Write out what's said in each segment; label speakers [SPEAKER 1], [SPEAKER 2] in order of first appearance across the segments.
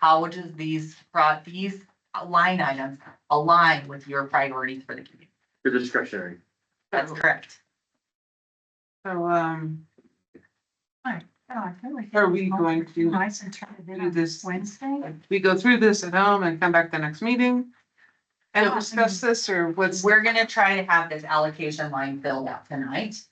[SPEAKER 1] how does these, pro- these line items align with your priorities for the community?
[SPEAKER 2] They're discretionary.
[SPEAKER 1] That's correct.
[SPEAKER 3] So, um,
[SPEAKER 4] Are
[SPEAKER 3] are we going to,
[SPEAKER 4] Nice and turn it in
[SPEAKER 3] do
[SPEAKER 4] on
[SPEAKER 3] this-
[SPEAKER 4] Wednesday?
[SPEAKER 3] we go through this at home and come back the next meeting? And
[SPEAKER 4] Yeah.
[SPEAKER 3] discuss this or what's,
[SPEAKER 1] We're gonna try to have this allocation line filled out tonight.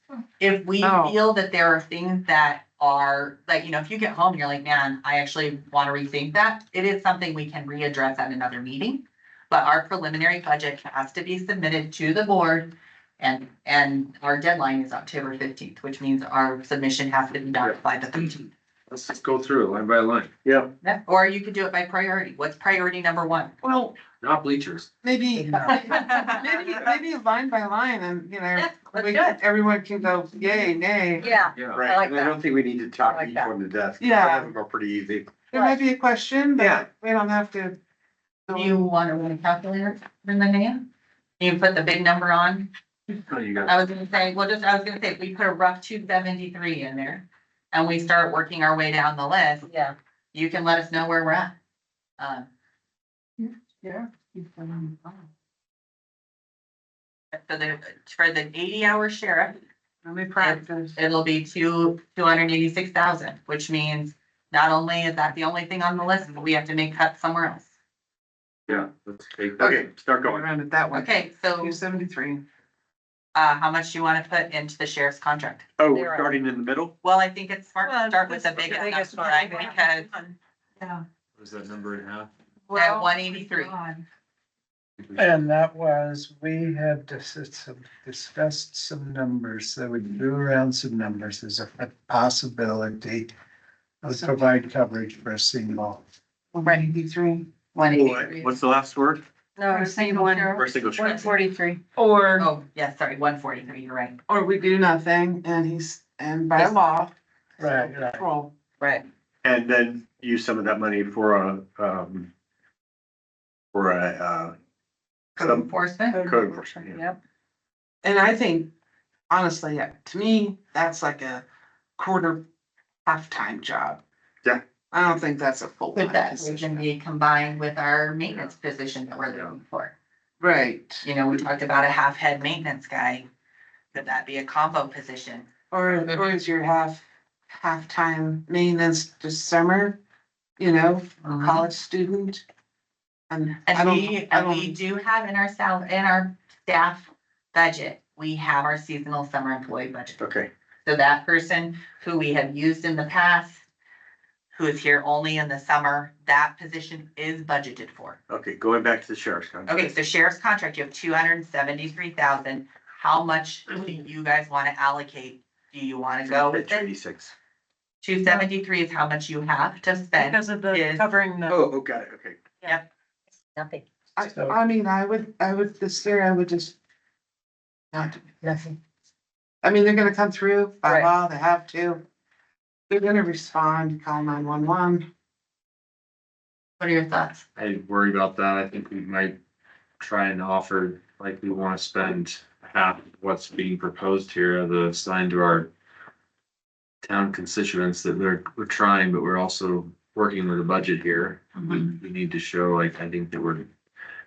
[SPEAKER 1] If we
[SPEAKER 3] Oh.
[SPEAKER 1] feel that there are things that are, like, you know, if you get home, and you're like, man, I actually wanna rethink that, it is something we can readdress at another meeting. But our preliminary budget has to be submitted to the board and, and our deadline is October fifteenth, which means our submission has to be done by the thirteenth.
[SPEAKER 2] Let's just go through it line by line. Yeah.
[SPEAKER 1] Or you could do it by priority. What's priority number one?
[SPEAKER 3] well,
[SPEAKER 2] Not bleachers.
[SPEAKER 3] maybe, maybe, maybe line by line and, you know, we, everyone can go yay, nay.
[SPEAKER 1] Yeah.
[SPEAKER 2] Yeah.
[SPEAKER 1] I
[SPEAKER 5] Right,
[SPEAKER 1] like
[SPEAKER 5] and I
[SPEAKER 1] that.
[SPEAKER 5] don't think we need to
[SPEAKER 1] I
[SPEAKER 5] talk
[SPEAKER 1] like
[SPEAKER 5] each
[SPEAKER 1] that.
[SPEAKER 5] one to death.
[SPEAKER 3] Yeah.
[SPEAKER 5] Some of them are pretty easy.
[SPEAKER 3] There might be a question,
[SPEAKER 5] Yeah.
[SPEAKER 3] but we don't have to.
[SPEAKER 1] You wanna run a calculator in the hand? You put the big number on?
[SPEAKER 2] Oh, you got
[SPEAKER 1] I was gonna say, well, just, I was gonna say, if we put a rough two seventy-three in there and we start working our way down the list. Yeah. You can let us know where we're at. Um,
[SPEAKER 4] Yeah.
[SPEAKER 1] for the, for the eighty-hour sheriff,
[SPEAKER 3] Let me practice.
[SPEAKER 1] it'll be two, two hundred and eighty-six thousand, which means not only is that the only thing on the list, but we have to make cuts somewhere else.
[SPEAKER 2] yeah, let's take that.
[SPEAKER 5] Okay, start
[SPEAKER 3] Go
[SPEAKER 5] going.
[SPEAKER 3] around it that way.
[SPEAKER 1] Okay, so,
[SPEAKER 3] Two seventy-three.
[SPEAKER 1] uh, how much do you wanna put into the sheriff's contract?
[SPEAKER 5] Oh,
[SPEAKER 4] Zero.
[SPEAKER 5] we're starting in the middle?
[SPEAKER 1] Well, I think it's smart to
[SPEAKER 4] Well,
[SPEAKER 1] start with the
[SPEAKER 4] that's the
[SPEAKER 1] biggest
[SPEAKER 4] biggest
[SPEAKER 1] number,
[SPEAKER 4] one,
[SPEAKER 1] right?
[SPEAKER 4] yeah.
[SPEAKER 1] Because
[SPEAKER 4] Yeah.
[SPEAKER 2] What is that number and a half?
[SPEAKER 1] At 183.
[SPEAKER 6] And that was, we had dis- some- discussed some numbers, so we drew around some numbers as a possibility of provide coverage for a single.
[SPEAKER 3] Right. Eighty-three.
[SPEAKER 1] one eighty-three.
[SPEAKER 5] What's the last word?
[SPEAKER 4] No, single one,
[SPEAKER 5] First single
[SPEAKER 4] one
[SPEAKER 5] shot.
[SPEAKER 4] forty-three.
[SPEAKER 3] Or,
[SPEAKER 1] Oh, yeah, sorry, one forty-three, you're right.
[SPEAKER 3] or we do nothing and he's, and by
[SPEAKER 1] Yes.
[SPEAKER 3] law.
[SPEAKER 6] Right, right.
[SPEAKER 3] Control.
[SPEAKER 1] Right.
[SPEAKER 5] And then use some of that money for a, um, for a, uh,
[SPEAKER 1] Code
[SPEAKER 5] some
[SPEAKER 1] enforcement.
[SPEAKER 5] code enforcement. yeah.
[SPEAKER 4] Yep.
[SPEAKER 3] And I think, honestly, yeah, to me, that's like a quarter, half-time job.
[SPEAKER 5] Yeah.
[SPEAKER 3] I don't think that's a full-time
[SPEAKER 1] Could that even
[SPEAKER 3] position.
[SPEAKER 1] be combined with our maintenance position that we're looking for?
[SPEAKER 3] Right,
[SPEAKER 1] You know, we talked about a half-head maintenance guy. Could that be a combo position?
[SPEAKER 3] or,
[SPEAKER 1] Mm-hmm.
[SPEAKER 3] or is your half, half-time maintenance just summer, you know, college student? And I
[SPEAKER 1] Mm-hmm. And
[SPEAKER 3] don't,
[SPEAKER 1] we,
[SPEAKER 3] I
[SPEAKER 1] and we
[SPEAKER 3] don't,
[SPEAKER 1] do have in our sal, in our staff budget, we have our seasonal summer employee budget.
[SPEAKER 5] Okay,
[SPEAKER 1] So that person who we have used in the past, who is here only in the summer, that position is budgeted for.
[SPEAKER 5] okay, going back to the sheriff's contract.
[SPEAKER 1] Okay, so sheriff's contract, you have two hundred and seventy-three thousand. How much do you guys wanna allocate? Do you wanna go with it?
[SPEAKER 5] Eighty-six.
[SPEAKER 1] Two seventy-three is how much you have to spend.
[SPEAKER 4] Because of
[SPEAKER 1] Is-
[SPEAKER 4] the covering the.
[SPEAKER 5] Oh, oh, got it, okay.
[SPEAKER 1] Nothing.
[SPEAKER 3] I,
[SPEAKER 6] So-
[SPEAKER 3] I mean, I would, I would, this year I would just not do nothing. I mean, they're gonna come through by
[SPEAKER 1] Right.
[SPEAKER 3] law, they have to. They're gonna respond, call nine-one-one.
[SPEAKER 1] What are your thoughts?
[SPEAKER 2] I worry about that. I think we might try and offer, like, we wanna spend half of what's being proposed here, the assigned to our town constituents that we're, we're trying, but we're also working with a budget here. We,
[SPEAKER 1] Mm-hmm.
[SPEAKER 2] we need to show, like, I think that we're,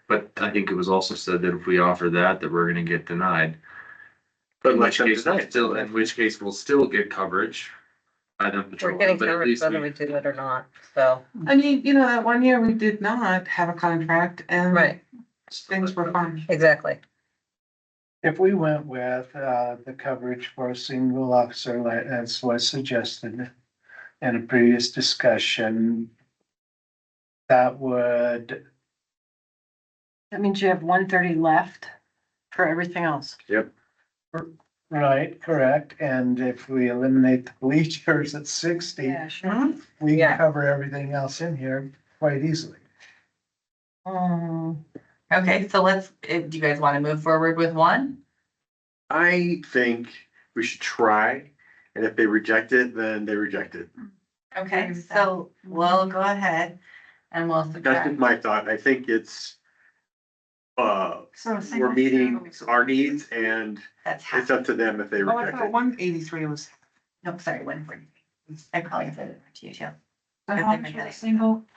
[SPEAKER 2] but I think it was also said that if we offer that, that we're gonna get denied.
[SPEAKER 5] But
[SPEAKER 2] In
[SPEAKER 5] let
[SPEAKER 2] which
[SPEAKER 5] them
[SPEAKER 2] case,
[SPEAKER 5] deny it.
[SPEAKER 2] still, in which case, we'll still get coverage. by them patrolling, but at least we-
[SPEAKER 4] do it or not, so.
[SPEAKER 3] I mean, you know, that one year we did not have a contract and.
[SPEAKER 4] Right.
[SPEAKER 3] Things were fine.
[SPEAKER 4] Exactly.
[SPEAKER 6] If we went with, uh, the coverage for a single officer, like as was suggested in a previous discussion, that would,
[SPEAKER 4] That means you have one thirty left for everything else.
[SPEAKER 6] right, correct, and if we eliminate the bleachers at sixty,
[SPEAKER 4] sure.
[SPEAKER 6] we
[SPEAKER 4] Yeah.
[SPEAKER 6] can cover everything else in here quite easily.
[SPEAKER 4] Um,
[SPEAKER 1] Okay, so let's, eh, do you guys wanna move forward with one?
[SPEAKER 5] I think we should try, and if they reject it, then they reject it.
[SPEAKER 1] Okay,
[SPEAKER 4] with that.
[SPEAKER 1] so we'll go ahead and we'll
[SPEAKER 5] That's just
[SPEAKER 1] subtract.
[SPEAKER 5] my thought. I think it's, uh,
[SPEAKER 4] so.
[SPEAKER 5] we're meeting our needs and
[SPEAKER 1] That's half.
[SPEAKER 5] it's up to them if they
[SPEAKER 3] Oh, I
[SPEAKER 5] reject
[SPEAKER 3] thought
[SPEAKER 5] it.
[SPEAKER 3] one eighty-three was.
[SPEAKER 1] Nope, sorry, one forty. I probably said it to you too.
[SPEAKER 4] Single